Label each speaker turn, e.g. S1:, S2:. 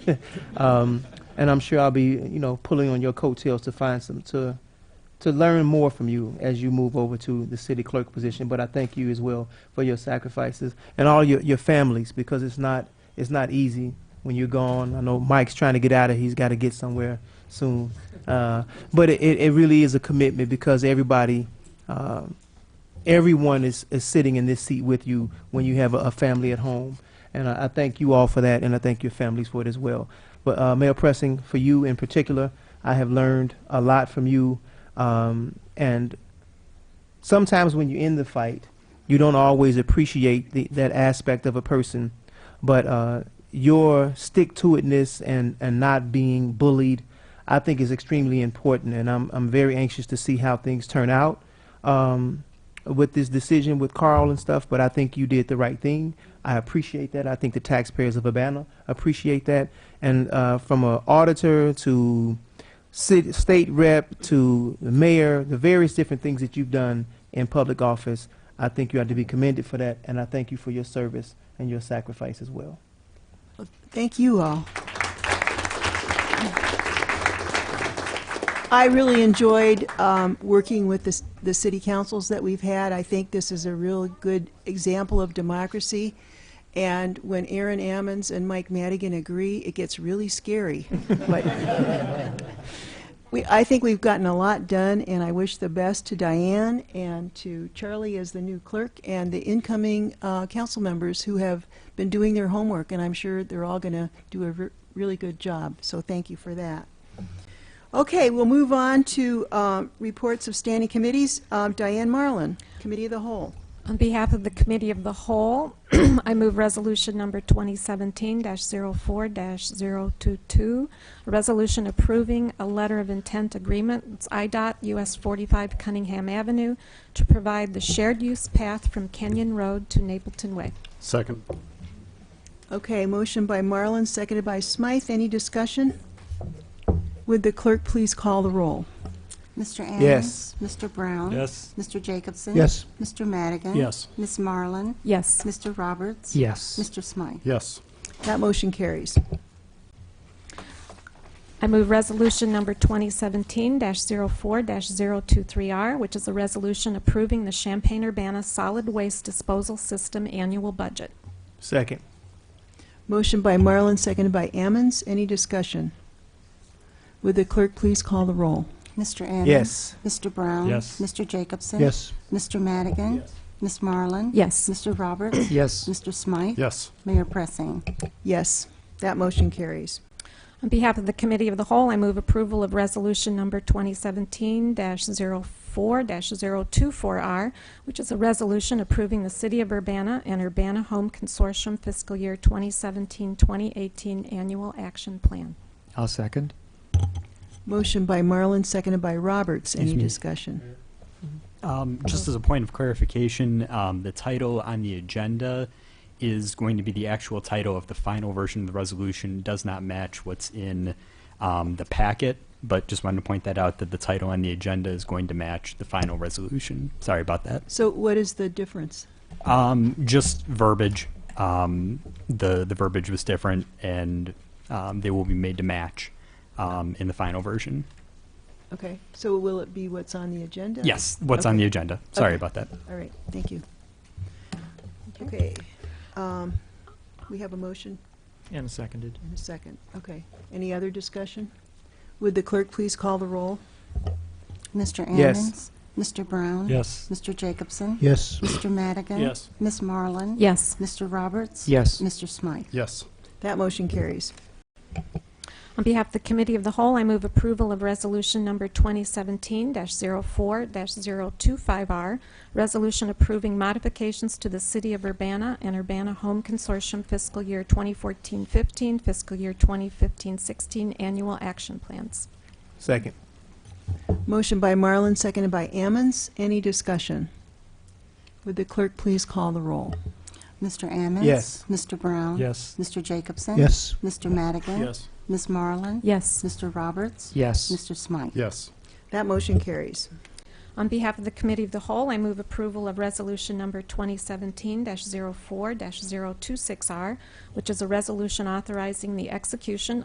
S1: um, and I'm sure I'll be, you know, pulling on your coattails to find some to to learn more from you as you move over to the city clerk position. But I thank you as well for your sacrifices and all your, your families because it's not it's not easy when you're gone. I know Mike's trying to get out of. He's got to get somewhere soon. Uh, but it, it it really is a commitment because everybody. Um, Everyone is, is sitting in this seat with you when you have a, a family at home. And I, I thank you all for that, and I thank your families for it as well. But uh, Mayor Pressing, for you in particular, I have learned a lot from you. Um, and sometimes when you're in the fight, you don't always appreciate the, that aspect of a person. But uh, your stick to itness and, and not being bullied, I think, is extremely important. And I'm, I'm very anxious to see how things turn out um, with this decision with Carl and stuff. But I think you did the right thing. I appreciate that. I think the taxpayers of Urbana appreciate that. And uh, from an auditor to city, state rep to the mayor, the various different things that you've done in public office, I think you ought to be commended for that. And I thank you for your service and your sacrifice as well.
S2: Thank you all. I really enjoyed um, working with this- the city councils that we've had. I think this is a real good example of democracy. And when Aaron Ammons and Mike Madigan agree, it gets really scary. But we, I think we've gotten a lot done, and I wish the best to Diane and to Charlie as the new clerk and the incoming uh, council members who have been doing their homework, and I'm sure they're all going to do a re- really good job. So thank you for that. Okay, we'll move on to um, reports of standing committees. Um, Diane Marlin, Committee of the Whole.
S3: On behalf of the Committee of the Whole, I move Resolution Number 2017-04-022, a resolution approving a letter of intent agreement, it's IDOT US 45 Cunningham Avenue, to provide the shared-use path from Kenyon Road to Napleton Way.
S4: Second.
S2: Okay, motion by Marlin, seconded by Smythe. Any discussion? Would the clerk please call the roll?
S5: Mr.
S1: Yes.
S5: Ammons? Mr. Brown?
S4: Yes.
S5: Mr. Jacobson?
S4: Yes.
S5: Mr. Madigan?
S4: Yes.
S5: Ms. Marlin?
S3: Yes.
S5: Mr. Roberts?
S4: Yes.
S5: Mr. Smythe?
S4: Yes.
S2: That motion carries.
S3: I move Resolution Number 2017-04-023R, which is a resolution approving the Champaign-Urbana Solid Waste Disposal System Annual Budget.
S1: Second.
S2: Motion by Marlin, seconded by Ammons. Any discussion? Would the clerk please call the roll?
S5: Mr. Ammons?
S1: Yes.
S5: Mr. Brown?
S4: Yes.
S5: Mr. Jacobson?
S4: Yes.
S5: Mr. Madigan?
S4: Yes.
S5: Ms. Marlin?
S3: Yes.
S5: Mr. Roberts?
S4: Yes.
S5: Mr. Smythe?
S4: Yes.
S5: Mayor Pressing?
S2: Yes, that motion carries.
S3: On behalf of the Committee of the Whole, I move approval of Resolution Number 2017-04-024R, which is a resolution approving the City of Urbana and Urbana Home Consortium Fiscal Year 2017-2018 Annual Action Plan.
S6: I'll second.
S2: Motion by Marlin, seconded by Roberts. Any
S6: Excuse me.
S2: discussion?
S6: Um, just as a point of clarification, um, the title on the agenda is going to be the actual title of the final version of the resolution. It Does not match what's in um, the packet, but just wanted to point that out that the title on the agenda is going to match the final resolution. Sorry about that.
S2: So what is the difference?
S6: Um, just verbiage. Um, the the verbiage was different, and um, they will be made to match um, in the final version.
S2: Okay, so will it be what's on the agenda?
S6: Yes, what's on
S2: Okay.
S6: the agenda. Sorry
S2: Okay.
S6: about that.
S2: All right, thank you. Okay, um, we have a motion
S7: And seconded.
S2: and a second. Okay, any other discussion? Would the clerk please call the roll?
S5: Mr. Ammons?
S1: Yes.
S5: Mr. Brown?
S4: Yes.
S5: Mr. Jacobson?
S4: Yes.
S5: Mr. Madigan?
S7: Yes.
S5: Ms. Marlin?
S3: Yes.
S5: Mr. Roberts?
S6: Yes.
S5: Mr. Smythe?
S4: Yes.
S2: That motion carries.
S3: On behalf of the Committee of the Whole, I move approval of Resolution Number 2017-04-025R, resolution approving modifications to the City of Urbana and Urbana Home Consortium Fiscal Year 2014-15, Fiscal Year 2015-16 Annual Action Plans.
S1: Second.
S2: Motion by Marlin, seconded by Ammons. Any discussion? Would the clerk please call the roll?
S5: Mr. Ammons?
S1: Yes.
S5: Mr. Brown?
S4: Yes.
S5: Mr. Jacobson?
S4: Yes.
S5: Mr. Madigan?
S7: Yes.
S5: Ms. Marlin?
S3: Yes.
S5: Mr. Roberts?
S6: Yes.
S5: Mr. Smythe?
S4: Yes.
S2: That motion carries.
S3: On behalf of the Committee of the Whole, I move approval of Resolution Number 2017-04-026R, which is a resolution authorizing the execution